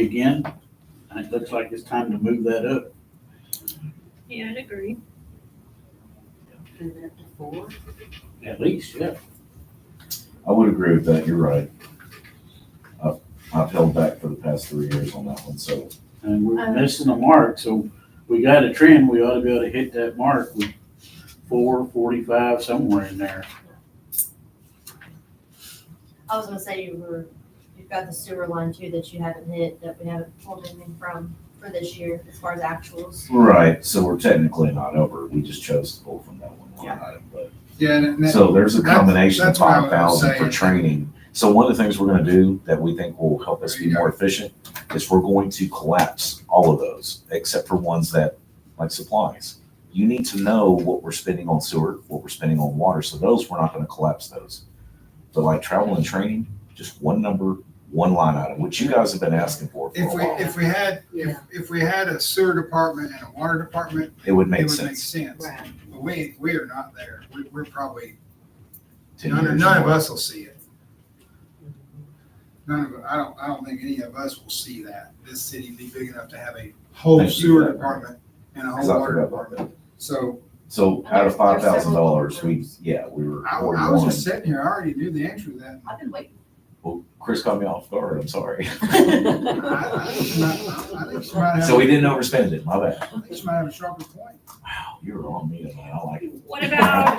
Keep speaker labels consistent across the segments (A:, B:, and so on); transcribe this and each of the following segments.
A: again, and it looks like it's time to move that up.
B: Yeah, I'd agree.
C: Move it up to four.
A: At least, yeah.
D: I would agree with that, you're right. I've, I've held back for the past three years on that one, so
A: And we're
B: Um,
A: missing the mark, so we got a trend, we ought to be able to hit that mark with four, forty-five, somewhere in there.
C: I was gonna say you were, you've got the sewer line too that you haven't hit, that we haven't pulled anything from for this year as far as actuals.
D: Right, so we're technically not over, we just chose to pull from that one line item, but,
E: Yeah, and that-
D: so there's a
E: That's-
D: combination of
E: that's what I
D: five
E: was
D: thousand for
E: saying.
D: training. So one of the things we're gonna do that we think will help us be more efficient is we're going to collapse all of those, except for ones that, like supplies. You need to know what we're spending on sewer, what we're spending on water, so those, we're not gonna collapse those. But like travel and training, just one number, one line item, which you guys have been asking for for a
E: if we,
D: while,
E: if we had, if, if we had a sewer department and a water department,
D: it would
E: it
D: make
E: would make
D: sense.
E: sense.
C: Right.
E: But we, we are not there. We, we're probably,
D: 10
E: none,
D: years
E: none of
D: more.
E: us will see it. None of, I don't, I don't think any of us will see that. This city be big enough to have a whole
D: Thank you.
E: sewer department and a
D: Cause
E: whole
D: I
E: water
D: forgot about that.
E: department. So
D: So out of five
C: There's- there's
D: thousand
C: several
D: dollars, we, yeah, we were.
E: I,
D: we
E: I
D: were
E: was
D: one.
E: just sitting here, I already knew the answer to that.
C: I've been waiting.
D: Well, Chris caught me off guard, I'm sorry.
E: I, I think she might- I think she might have-
D: So we didn't overspend it, my bad.
E: I think she might have a sharper point.
D: Wow, you were on me tonight, I like it.
B: What about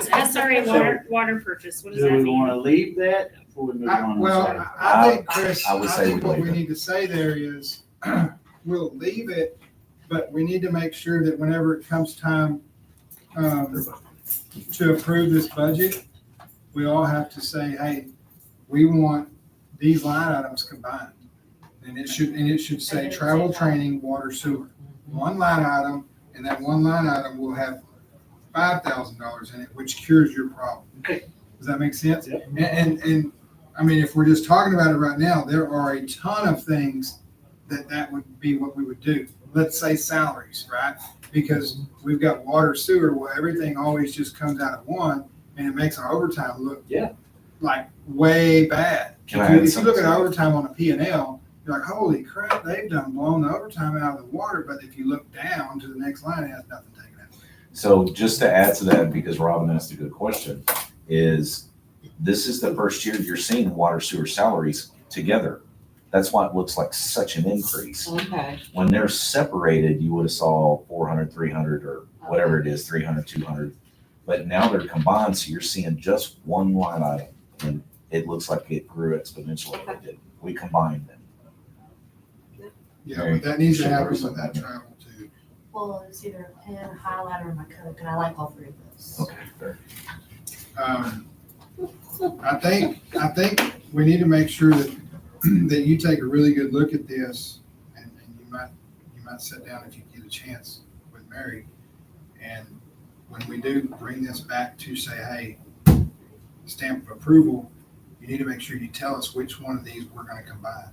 B: SRA water, water purchase? What does
A: Do
B: that
A: we
B: mean?
A: wanna leave that before we move
E: I-
A: on?
E: Well,
A: Sorry.
E: I- I think,
D: I-
E: Chris,
D: "Oh, I would
E: I
D: say
E: think
D: we'd
E: what
D: leave
E: we
D: it.
E: need to say there is, we'll leave it, but we need to make sure that whenever it comes time um, to approve this budget, we all have to say, hey, we want these line items combined. And it should, and it should say
C: And it should
E: travel,
C: say- Mm-hmm.
E: training, water, sewer. One line item, and that one line item will have five thousand dollars in it, which cures your problem.
A: Okay.
E: Does that make sense?
A: Yep.
E: And, and, and, I mean, if we're just talking about it right now, there are a ton of things that that would be what we would do. Let's say salaries, right? Because we've got water, sewer, well, everything always just comes out of one, and it makes our overtime look.
A: Yeah.
E: Like way bad.
D: Can
E: If
D: I
E: you-
D: add
E: If you look at
D: something?
E: overtime on a P and L, you're like, holy crap, they've done blown the overtime out of the water, but if you look down to the next line, it has nothing taken out.
D: So just to add to that, because Robin asked a good question, is this is the first year you're seeing water sewer salaries together. That's why it looks like such an increase.
F: Okay.
D: When they're separated, you would have saw 400, 300, or whatever it is, 300, 200. But now they're combined, so you're seeing just one line item, and it looks like it grew exponentially. It did. We combined them.
E: Yeah, but that needs to
D: Sure.
E: happen with that travel too.
C: Well, it's either a pen, a highlighter, or my coat, and I like all three of those.
D: Okay.
E: Um, I think, I think we need to make sure that, that you take a really good look at this. And, and you might, you might sit down if you get a chance with Mary. And when we do bring this back to say, hey, stamp of approval, you need to make sure you tell us which one of these we're gonna combine.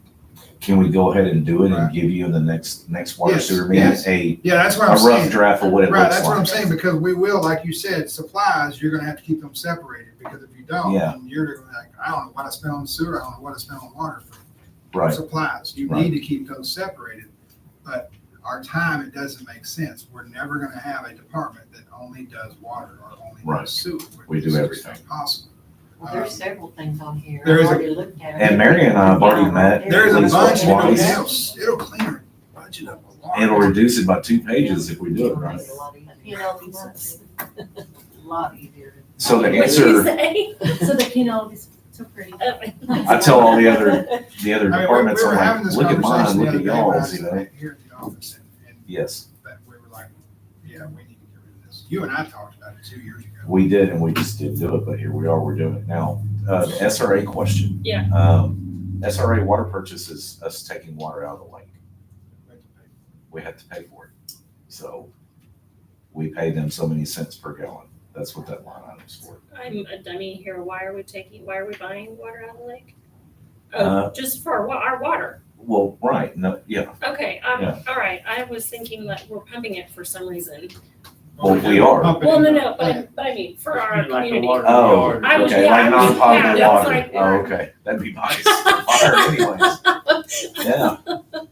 D: Can we go ahead and do it and
E: Right.
D: give you in the next, next water
E: Yes,
D: sewer meeting
E: yes.
D: a,
E: Yeah, that's what
D: a
E: I'm saying.
D: rough draft of what it
E: Right,
D: looks
E: that's what I'm
D: like?
E: saying, because we will, like you said, supplies, you're gonna have to keep them separated, because if you don't,
D: Yeah.
E: then you're gonna be like, I don't know what I spent on sewer, I don't know what I spent on water for
D: Right,
E: supplies. You
D: Right.
E: need to keep those separated, but our time, it doesn't make sense. We're never gonna have a department that only does water or only
D: Right.
E: does sewer.
D: We do
E: It's just
D: everything.
E: Impossible.
F: Well, there's several things on here.
E: There is
F: I've
E: a-
F: already looked at.
D: and Mary and I have already met.
E: There is a
D: at least
E: bunch, you know,
D: once.
E: it'll, it'll clean our budget up a lot.
D: It'll reduce it by two pages if we do it right.
C: You know, these ones.
F: A lot easier.
D: So the
C: What did you
D: answer,
C: say? So the Pinot is so pretty.
B: Uh,
D: I tell all the other, the
E: I
D: other
E: mean, we-
D: departments,
E: we were
D: I'm
E: having
D: like,
E: this
D: look at mine,
E: conversation the
D: look
E: other
D: at
E: day when I
D: y'all's,
E: was
D: you know?
E: Here at the office, and, and
D: Yes,
E: that we were like, yeah, we need to get rid of this. You and I talked about it two years ago.
D: we did, and we just didn't do it, but here we are, we're doing it now. Uh, the SRA question.
B: Yeah.
D: Um, SRA water purchase is us taking water out of the lake. we have to pay for it. So we pay them so many cents per gallon. That's what that line item's for.
B: I'm a dummy here. Why are we taking, why are we buying water out of the lake?
D: Uh,
A: Uh-huh.
B: Oh, just for our wa- our water.
D: Well, right, no, yeah,
B: Okay, um,
D: Yeah.
B: all right. I was thinking that we're pumping it for some reason.
D: Well, we are.
E: Pump it
B: Well, no,
E: in the
B: no, but, I-
E: plant.
B: but I mean, for our
A: Like the
B: community.
A: water in the
D: Oh,
A: yard.
B: I was-
D: okay,
B: yeah, I
D: like
B: was- yeah,
D: non-potable Oh,
B: that's
D: water.
B: like-
D: Oh, okay, that'd be nice. Fire anyways. Yeah,